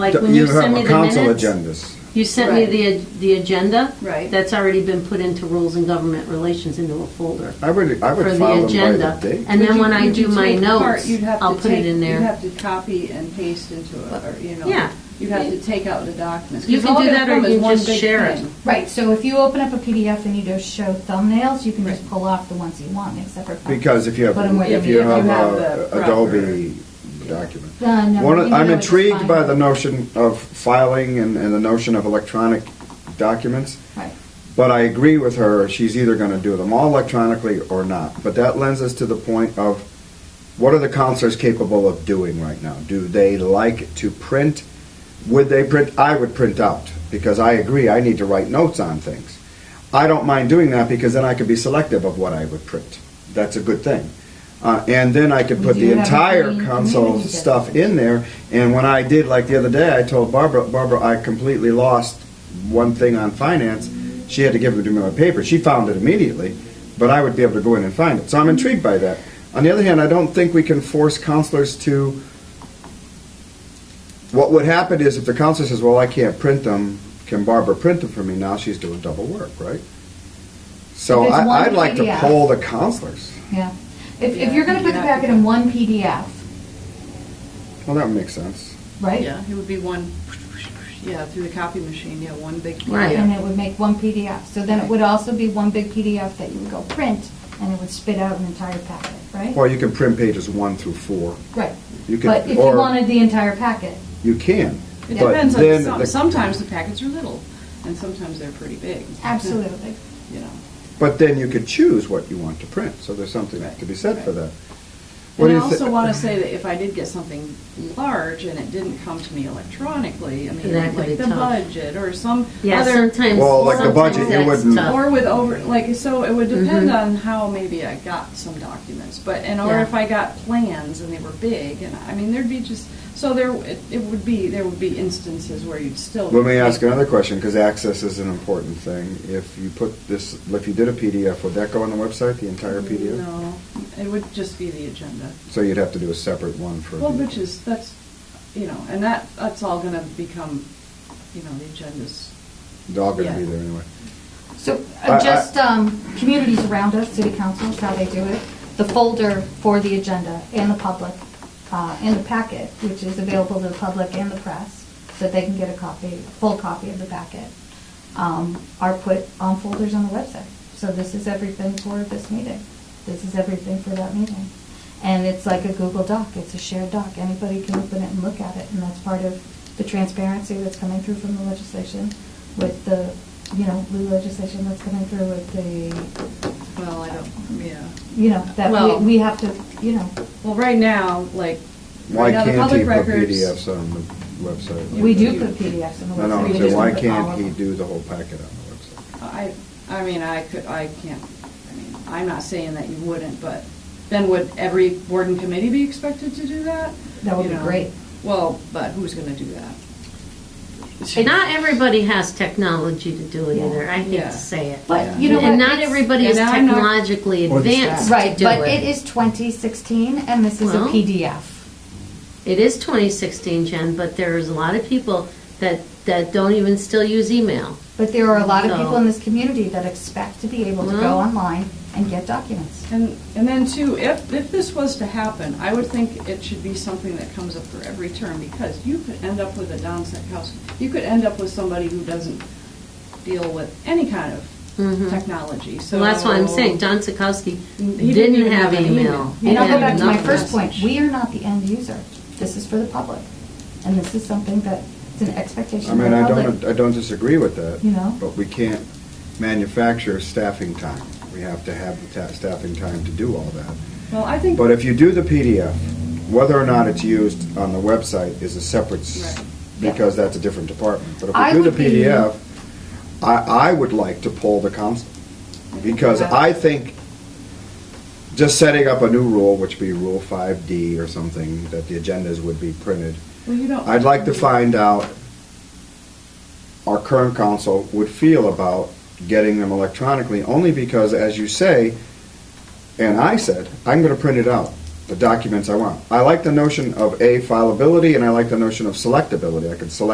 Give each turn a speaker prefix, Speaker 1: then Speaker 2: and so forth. Speaker 1: Like when you send me the
Speaker 2: council
Speaker 1: minutes,
Speaker 2: agendas.
Speaker 1: you sent me the, the agenda.
Speaker 3: Right.
Speaker 1: That's already been put into rules and government relations into a folder
Speaker 2: I would, I
Speaker 1: for
Speaker 2: would
Speaker 1: the
Speaker 2: file them by
Speaker 1: agenda.
Speaker 2: the date.
Speaker 1: And
Speaker 3: Would
Speaker 1: then
Speaker 3: you-
Speaker 1: when I
Speaker 3: would you
Speaker 1: do my
Speaker 3: take apart-
Speaker 1: notes,
Speaker 3: you'd have to
Speaker 1: I'll put it
Speaker 3: take-
Speaker 1: in
Speaker 3: You'd
Speaker 1: there.
Speaker 3: have to copy and paste into it, or, you know.
Speaker 1: Yeah.
Speaker 3: You'd have to take out the documents.
Speaker 1: You
Speaker 3: 'cause
Speaker 1: can
Speaker 3: all
Speaker 1: do
Speaker 3: they
Speaker 1: that or
Speaker 3: become
Speaker 1: you
Speaker 3: is one
Speaker 1: just
Speaker 3: big
Speaker 1: share it.
Speaker 3: thing.
Speaker 4: Right, so if you open up a PDF and you just show thumbnails, you can just pull off the ones you want, make separate files.
Speaker 2: Because if you have,
Speaker 4: Put 'em where
Speaker 2: if
Speaker 4: you
Speaker 2: you
Speaker 4: need 'em.
Speaker 2: have
Speaker 3: have
Speaker 2: a
Speaker 3: the
Speaker 2: Adobe document.
Speaker 4: Uh, no,
Speaker 2: One,
Speaker 4: you
Speaker 2: of-
Speaker 4: know
Speaker 2: I'm
Speaker 4: it's
Speaker 2: intrigued
Speaker 4: fine.
Speaker 2: by the notion of filing and, and the notion of electronic documents.
Speaker 4: Right.
Speaker 2: But I agree with her, she's either gonna do them all electronically or not. But that lends us to the point of, what are the counselors capable of doing right now? Do they like to print? Would they print, I would print out, because I agree, I need to write notes on things. I don't mind doing that, because then I could be selective of what I would print. That's a good thing. Uh, and then I could
Speaker 4: We
Speaker 2: put
Speaker 4: do
Speaker 2: the
Speaker 4: have a
Speaker 2: entire
Speaker 4: green
Speaker 2: council
Speaker 4: community
Speaker 2: stuff
Speaker 4: definition.
Speaker 2: in there, and when I did, like the other day, I told Barbara, Barbara, I completely lost one thing on finance, she had to give it to me on paper. She found it immediately, but I would be able to go in and find it. So I'm intrigued by that. On the other hand, I don't think we can force counselors to. What would happen is if the counselor says, "Well, I can't print them," can Barbara print them for me? Now she's doing double work, right? So
Speaker 4: If it's one
Speaker 2: I, I'd like to
Speaker 4: PDF.
Speaker 2: poll the counselors.
Speaker 4: Yeah. If, if
Speaker 3: Yeah,
Speaker 4: you're gonna
Speaker 3: you
Speaker 4: put the
Speaker 3: have
Speaker 4: packet
Speaker 3: to-
Speaker 4: in one PDF,
Speaker 2: Well, that makes sense.
Speaker 4: right?
Speaker 3: Yeah, it would be one, yeah, through the copy machine, yeah, one big.
Speaker 1: Right.
Speaker 4: And
Speaker 3: yeah.
Speaker 4: it would make one PDF. So then it would also be one big PDF that you would go print, and it would spit out an entire packet, right?
Speaker 2: Well, you can print pages one through four.
Speaker 4: Right.
Speaker 2: You can,
Speaker 4: But if you
Speaker 2: or
Speaker 4: wanted the entire packet,
Speaker 2: you can.
Speaker 3: It
Speaker 2: but
Speaker 3: depends
Speaker 2: then
Speaker 3: on, some-
Speaker 2: the-
Speaker 3: sometimes the packets are little, and sometimes they're pretty big.
Speaker 4: absolutely.
Speaker 3: You know.
Speaker 2: But then you could choose what you want to print, so there's something to be said for that. What
Speaker 3: And
Speaker 2: do
Speaker 3: I
Speaker 2: you thi-
Speaker 3: also want to say that if I did get something large and it didn't come to me electronically, I mean,
Speaker 1: That could be
Speaker 3: like the
Speaker 1: tough.
Speaker 3: budget or some
Speaker 1: Yeah,
Speaker 3: other,
Speaker 1: sometimes,
Speaker 2: Well, like the budget,
Speaker 1: sometimes
Speaker 2: you
Speaker 1: that's
Speaker 2: wouldn't-
Speaker 1: tough. Mm-hmm.
Speaker 3: or with over, like, so it would depend on how maybe I got some documents, but, and or
Speaker 1: Yeah.
Speaker 3: if I got plans and they were big, and I mean, there'd be just, so there, it it would be, there would be instances where you'd still.
Speaker 2: Let me ask another question, because access is an important thing. If you put this, if you did a PDF, would that go on the website, the entire PDF?
Speaker 3: No, it would just be the agenda.
Speaker 2: So you'd have to do a separate one for.
Speaker 3: Well,
Speaker 2: the-
Speaker 3: which is, that's, you know, and that, that's all gonna become, you know, the agenda's
Speaker 2: They're all gonna be
Speaker 3: yeah.
Speaker 2: there anyway.
Speaker 4: So
Speaker 2: I- I-
Speaker 4: uh, just um, communities around us, city councils, how they do it, the folder for the agenda and the public, uh, and the packet, which is available to the public and the press, so that they can get a copy, a full copy of the packet, um, are put on folders on the website. So this is everything for this meeting. This is everything for that meeting. And it's like a Google Doc. It's a shared doc. Anybody can open it and look at it, and that's part of the transparency that's coming through from the legislation with the, you know, the legislation that's coming through with the,
Speaker 3: Well, I don't, yeah.
Speaker 4: you know, that
Speaker 3: Well-
Speaker 4: we, we have to, you know,
Speaker 3: Well, right now, like,
Speaker 2: Why
Speaker 3: right now, the
Speaker 2: can't he
Speaker 3: public
Speaker 2: put
Speaker 3: records.
Speaker 2: PDFs on the website?
Speaker 4: we do put PDFs on the
Speaker 2: No, no,
Speaker 4: website.
Speaker 2: I'm
Speaker 4: We
Speaker 2: saying,
Speaker 4: just
Speaker 2: why
Speaker 4: don't put all
Speaker 2: can't
Speaker 4: of
Speaker 2: he
Speaker 4: them.
Speaker 2: do the whole packet on the website?
Speaker 3: I, I mean, I could, I can't, I mean, I'm not saying that you wouldn't, but then would every board and committee be expected to do that?
Speaker 4: That would
Speaker 3: You
Speaker 4: be
Speaker 3: know?
Speaker 4: great.
Speaker 3: Well, but who's gonna do that?
Speaker 1: Not everybody has technology to do it
Speaker 4: Yeah.
Speaker 1: either, I hate
Speaker 3: Yeah.
Speaker 1: to say it.
Speaker 4: But you know what?
Speaker 1: And not
Speaker 4: It's-
Speaker 1: everybody
Speaker 3: and
Speaker 1: is
Speaker 3: I'm not-
Speaker 1: technologically
Speaker 2: Or the staff.
Speaker 1: advanced to
Speaker 4: Right,
Speaker 1: do
Speaker 4: but it
Speaker 1: it.
Speaker 4: is 2016, and this is a
Speaker 1: Well-
Speaker 4: PDF.
Speaker 1: It is 2016, Jen, but there's a lot of people that, that don't even still use email.
Speaker 4: But there are a lot of people
Speaker 1: No.
Speaker 4: in this community that expect to be able to
Speaker 1: No.
Speaker 4: go online and get documents.
Speaker 3: And, and then too, if, if this was to happen, I would think it should be something that comes up for every term, because you could end up with a downset house. You could end up with somebody who doesn't deal with any kind of
Speaker 1: Mhm.
Speaker 3: technology, so.
Speaker 1: Well, that's why I'm saying, Don Sikowski
Speaker 3: He
Speaker 1: didn't have
Speaker 3: an
Speaker 1: email.
Speaker 3: He
Speaker 4: And I'll go
Speaker 3: didn't
Speaker 4: back to
Speaker 3: have
Speaker 4: my
Speaker 3: a
Speaker 4: first point,
Speaker 3: message.
Speaker 4: we are not the end user. This is for the public. And this is something that, it's an
Speaker 2: I
Speaker 4: expectation for
Speaker 2: mean,
Speaker 4: the
Speaker 2: I don't,
Speaker 4: public.
Speaker 2: I don't disagree with that.
Speaker 4: You know?
Speaker 2: But we can't manufacture staffing time. We have to have the ta- staffing time to do all that.
Speaker 3: Well, I think,
Speaker 2: But if you do the PDF, whether or not it's used on the website is a separate, s-
Speaker 3: Right.
Speaker 2: because that's a different department. But
Speaker 4: I
Speaker 2: if we do
Speaker 4: would
Speaker 2: the
Speaker 4: be-
Speaker 2: PDF, I, I would like to poll the council, because I think just setting up a new rule, which would be Rule 5D or something, that the agendas would be printed,
Speaker 3: well, you don't.
Speaker 2: I'd like to find out our current council would feel about getting them electronically, only because, as you say, and I said, I'm gonna print it out. the documents I want. I like the notion of A, fileability, and I like the notion of selectability. I can select